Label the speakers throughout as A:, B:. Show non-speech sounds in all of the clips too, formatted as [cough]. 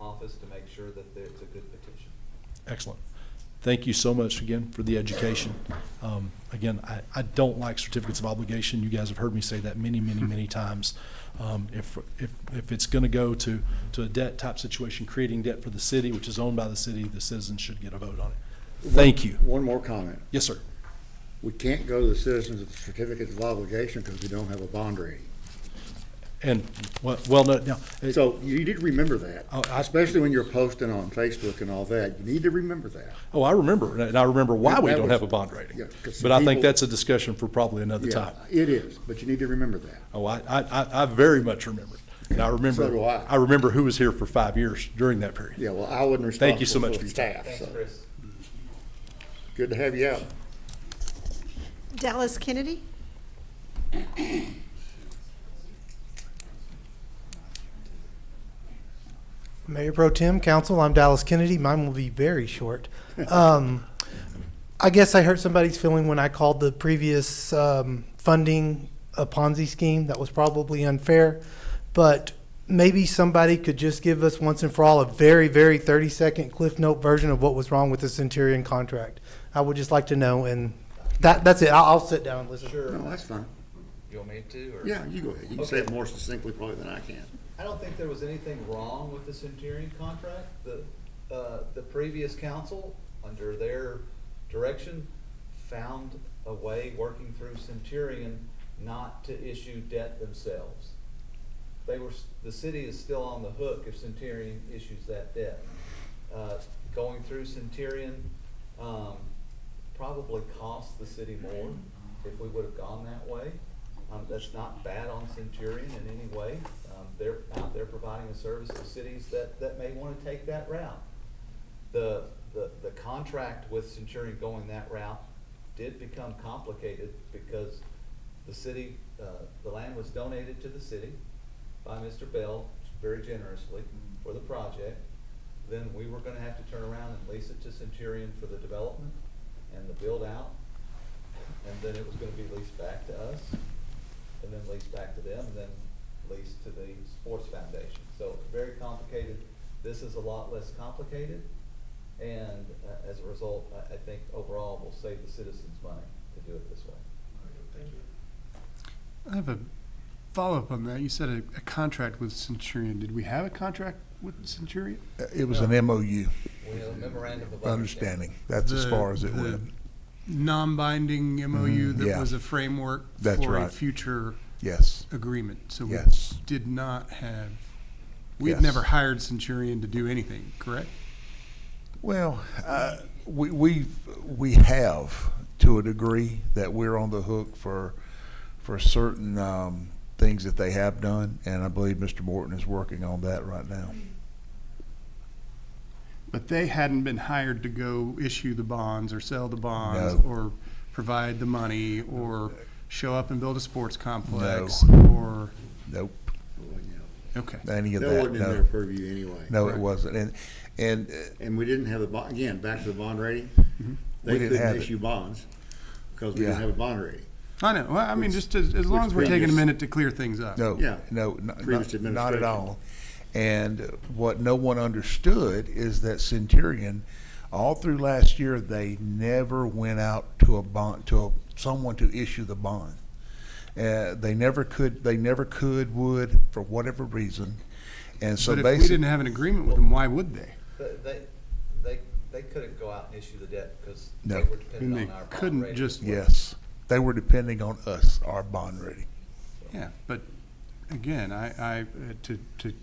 A: office to make sure that it's a good petition.
B: Excellent. Thank you so much again for the education. Um, Again, I, I don't like certificates of obligation. You guys have heard me say that many,
C: [laughs]
B: many, many times. Um, If, if, if it's going to go to, to a debt type situation, creating debt for the city, which is owned by the city, the citizens should get a vote on it. Thank you.
C: One more comment.
B: Yes, sir.
C: We can't go to the citizens with certificates of obligation because we don't have a bond rating.
B: And, well, well, no, now, eh, it-
C: So you need to remember that,
B: Oh, I-
C: especially when you're posting on Facebook and all that. You need to remember that.
B: oh, I remember, and I remember why we
C: That
B: don't
C: was-
B: have a bond rating.
C: yeah, 'cause
B: But I think
C: people-
B: that's a discussion for probably another
C: Yeah,
B: time.
C: It is, but you need to remember that.
B: Oh, I, I, I- I very much remember it. And I remember,
C: So do I.
B: remember who was here for five years during that period.
C: Yeah, well, I wasn't
B: Thank you so
C: responsible
B: much
C: for
B: for
C: the
B: your
C: staff,
A: Thanks,
C: so.
A: Chris.
C: Good to have you out.
D: Dallas Kennedy?
E: Mayor Pro Tem, Council, I'm Dallas Kennedy. Mine will be very short. Um, I guess I hurt somebody's feeling when I called the previous um, funding a Ponzi scheme. That was probably unfair. But maybe somebody could just give us once and for all a very, very 30 second Cliff Note version of what was wrong with the Centurion contract. I would just like to know, and that, that's it. I'll, I'll sit down and listen.
C: No, that's fine.
A: You want me to, or?
C: Yeah, you go ahead. You can say it
A: Okay.
C: more succinctly probably than I can.
A: I don't think there was anything wrong with the Centurion contract. The, uh, the previous council, under their direction, found a way, working through Centurion, not to issue debt themselves. They were, s- the city is still on the hook if Centurion issues that debt. Uh, Going through Centurion, um, probably cost the city more if we would have gone that way. Um, that's not bad on Centurion in any way. Um, they're out there providing a service to cities that, that may want to take that route. The, the, the contract with Centurion going that route did become complicated because the city, uh, the land was donated to the city by Mr. Bell very generously for the project. Then we were gonna have to turn around and lease it to Centurion for the development and the build out. And then it was gonna be leased back to us, and then leased back to them, and then leased to the sports foundation. So very complicated. This is a lot less complicated. And uh, as a result, I, I think overall we'll save the citizens money to do it this way.
F: I have a follow-up on that. You said a, a contract with Centurion. Did we have a contract with Centurion?
G: It was an MOU,
A: We have a memorandum of understanding.
G: understanding. That's as
F: The-
G: far as it
F: the
G: went.
F: Non-binding MOU
G: Mhm,
F: that
G: yeah.
F: was a framework
G: That's
F: for a
G: right.
F: future
G: Yes,
F: agreement. So we
G: yes.
F: did not have. We've
G: Yes.
F: never hired Centurion to do anything, correct?
G: Well, uh, we, we, we have to a degree that we're on the hook for, for certain, um, things that they have done. And I believe Mr. Morton is working on that right now.
F: But they hadn't been hired to go issue the bonds or sell the bonds
G: No.
F: or provide the money or show up and build a sports complex or
G: Nope,
F: okay.
G: any of
C: That
G: that,
C: wasn't in their
G: no.
C: purview anyway.
G: No, it wasn't. And, and uh,
C: And we didn't have the bond, again, back to the bond rating. They
G: Mm-hmm. We didn't have
C: couldn't
G: it.
C: issue bonds because we didn't
G: Yeah.
C: have a bond rating.
F: I know. Well, I mean, just as, as long
C: which
F: as we're taking a
C: previous-
F: minute to clear things up.
G: No,
C: Yeah.
G: no, n- not,
C: Previous
G: not
C: administration.
G: at all. And what no one understood is that Centurion, all through last year, they never went out to a bond, to a, someone to issue the bond. Uh, they never could, they never could, would, for whatever reason. And so
F: But if we didn't
G: basically,
F: have an agreement with them, why would they?
A: But They, they, they couldn't go out and issue the debt because
G: No.
A: they were
F: And
A: dependent
F: they
A: on our bond
F: couldn't
A: rating.
F: just, yeah,
G: yes, they were depending on us, our bond rating.
F: but again, I, I, uh, to, to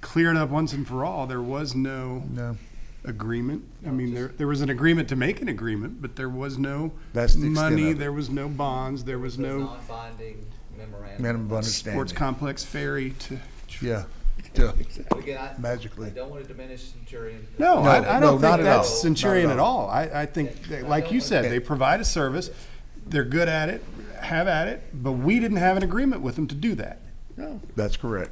F: clear it up once and for all, there was no
G: No,
F: agreement. I mean, there, there was an agreement to make an agreement, but there was no
G: That's the extent
F: money,
G: of it.
F: there was no bonds, there was
A: It's a
F: no
A: Non-binding memorandum.
G: minimum of
F: sports
G: understanding.
F: complex ferry to.
G: Yeah, yeah,
A: But again, I, I
G: magically.
A: don't want to diminish Centurion.
F: No,
G: No,
F: I, I
G: no,
F: don't
G: not
F: think
G: at all.
F: that's Centurion
G: Not
F: at
G: at
F: all. I, I think, that, like you said, they provide a service, they're good at it, have at it, but we didn't have an agreement with them to do that.
C: No,
G: That's correct.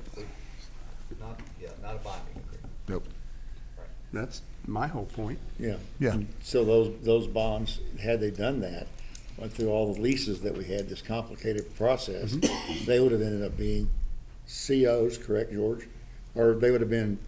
A: Not, yeah, not a binding agreement.
G: Nope.
F: That's my whole point.
C: yeah.
G: Yeah.
C: So those, those bonds, had they done that, went through all the leases that we had, this complicated
G: Mm-hmm.
C: process, they would have ended up being COs, correct, George? Or they would have been